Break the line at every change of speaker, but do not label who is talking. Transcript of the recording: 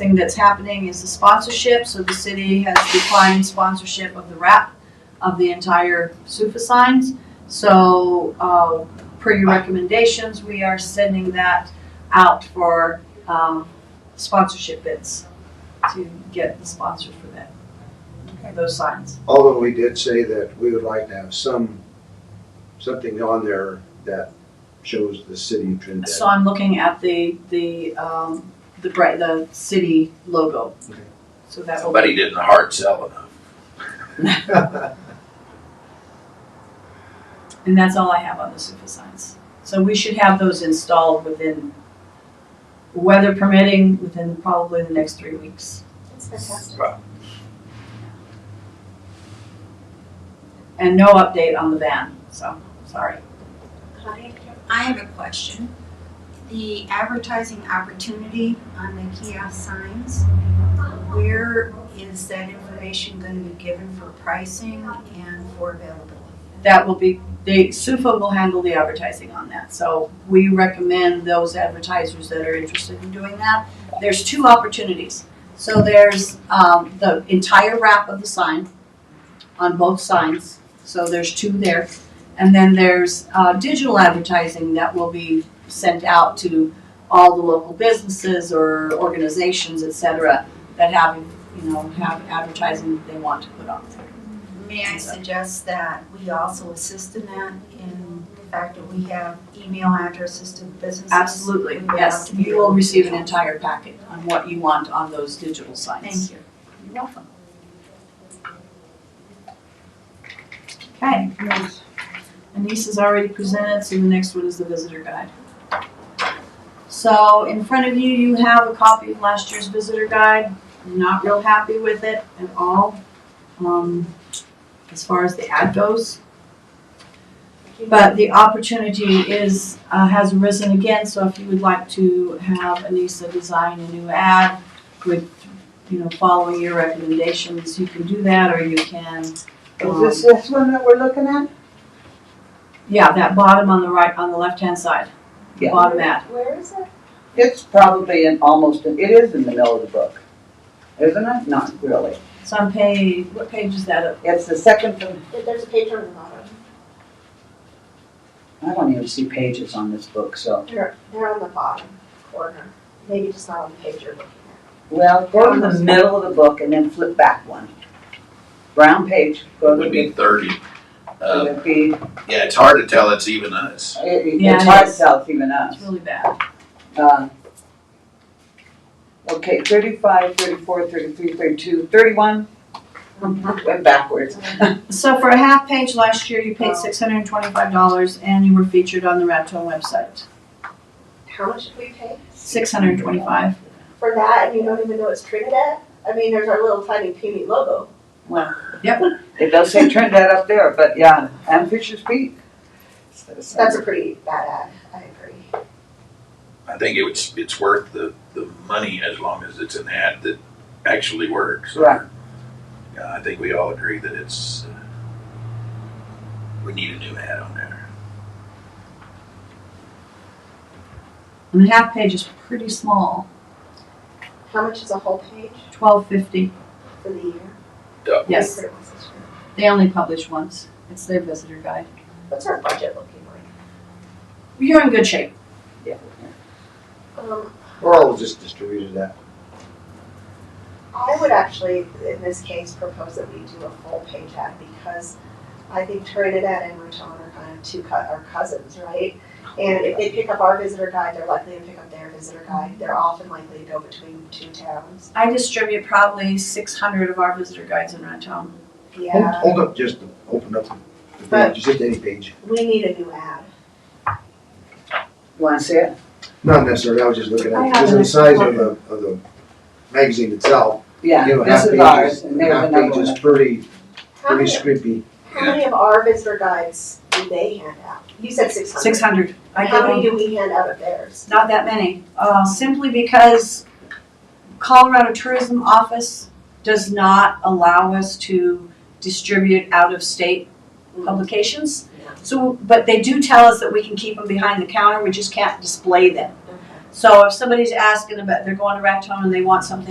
thing that's happening is the sponsorship, so the city has declined sponsorship of the wrap of the entire Sufa signs. So, uh, per your recommendations, we are sending that out for, um, sponsorship bids to get the sponsor for that, for those signs.
Although we did say that we would like to have some, something on there that shows the city of Trinidad.
So I'm looking at the, the, um, the bright, the city logo.
Okay.
So that will
But he
be,
didn't hard sell enough.
and that's all I have on the super signs. So we should have those installed within, weather permitting, within probably the next three weeks.
That's fantastic.
And no update on the van, so, sorry.
I I have a question. The advertising opportunity on the kiosk signs, where is that information going to be given for pricing and for availability?
That will be, they, SUFA will handle the advertising on that, so we recommend those advertisers that are interested in doing that. There's two opportunities. So there's, um, the entire wrap of the sign on both signs, so there's two there. And then there's, uh, digital advertising that will be sent out to all the local businesses or organizations, et cetera, that have, you know, have advertising that they want to put on there.
May I suggest that we also assist in that in the fact that we have email addresses to businesses?
Absolutely,
We would
yes.
have to be
You will
able to
receive an
do that.
entire packet on what you want on those digital signs.
Thank you.
You're welcome. Okay. great. Anise has already presented, so the next one is the visitor guide. So in front of you, you have a copy of last year's visitor guide. I'm not real happy with it at all, um, as far as the ad goes. But the opportunity is, uh, has arisen again, so if you would like to have Anissa design a new ad with, you know, following your recommendations, you can do that, or you can,
Is this this one that we're looking at?
yeah, that bottom on the right, on the left-hand side. the
Yeah.
Bottom ad.
Where is it?
It's probably in almost, it is in the middle of the book, isn't it? Not really.
It's on page, what page is that?
It's the second from,
There- There's a page on the bottom.
I don't even see pages on this book, so.
They're, they're on the bottom corner. Maybe just not on the page you're looking at.
Well, go to the middle of the book and then flip back one. Brown page, go
It
to
would
the,
be thirty.
it
Uh,
would be, it-
yeah, it's hard to tell it's even us.
it's
Yeah,
hard
it's-
to tell it's even us.
It's really bad.
Uh, Okay, thirty-five, thirty-four, thirty-three, thirty-two, thirty-one, went backwards.
So for a half page last year, you
Oh.
paid six hundred and twenty-five dollars, and you were featured on the Raptor website.
How much did we pay
Six hundred and twenty-five.
for that? And you don't even know it's Trinidad? I mean, there's our little tiny puny logo.
It does say Trinidad up there, but yeah, and Fisher's Peak.
That's a pretty bad ad. I agree.
I think it's, it's worth the, the money as long as it's an ad that actually works.
Right.
Yeah, I think we all agree that it's, uh, we need a new ad on there.
And the half page is pretty small,
How much is a whole page
twelve fifty.
for the year?
Double.
Yes.
Pretty much this year.
They only publish once. It's their visitor guide.
What's our budget looking like?
You're in good shape.
Um,
Or I'll just distribute that.
I would actually, in this case, propose that we do a full page ad because I think Trinidad and Raton are kind of two, cou- are cousins, right? And if they pick up our visitor guide, they're likely to pick up their visitor guide. They're often likely to go between two towns.
I distribute probably 600 of our visitor guides in Raton.
Hold,
Yeah,
hold up, just open up the
But-
page, just any page.
we need a new ad.
Want to see it?
Not necessarily, I was just looking
I
at,
have
it. because of
an
the size of
extra
the, of the magazine itself.
Yeah,
you know,
this
half
is
pages-
ours, and there's
half
another
page is
one.
pretty,
How
pretty
many,
scrimpy.
how many of our visitor guides do they hand out? You said six
600.
hundred.
I
How many
give them
do we hand out of theirs?
not that many, uh, simply because Colorado Tourism Office does not allow us to distribute out of state publications.
Yeah.
So, but they do tell us that we can keep them behind the counter. We just can't display them.
Okay.
So if somebody's asking about they're going to Raton and they want something.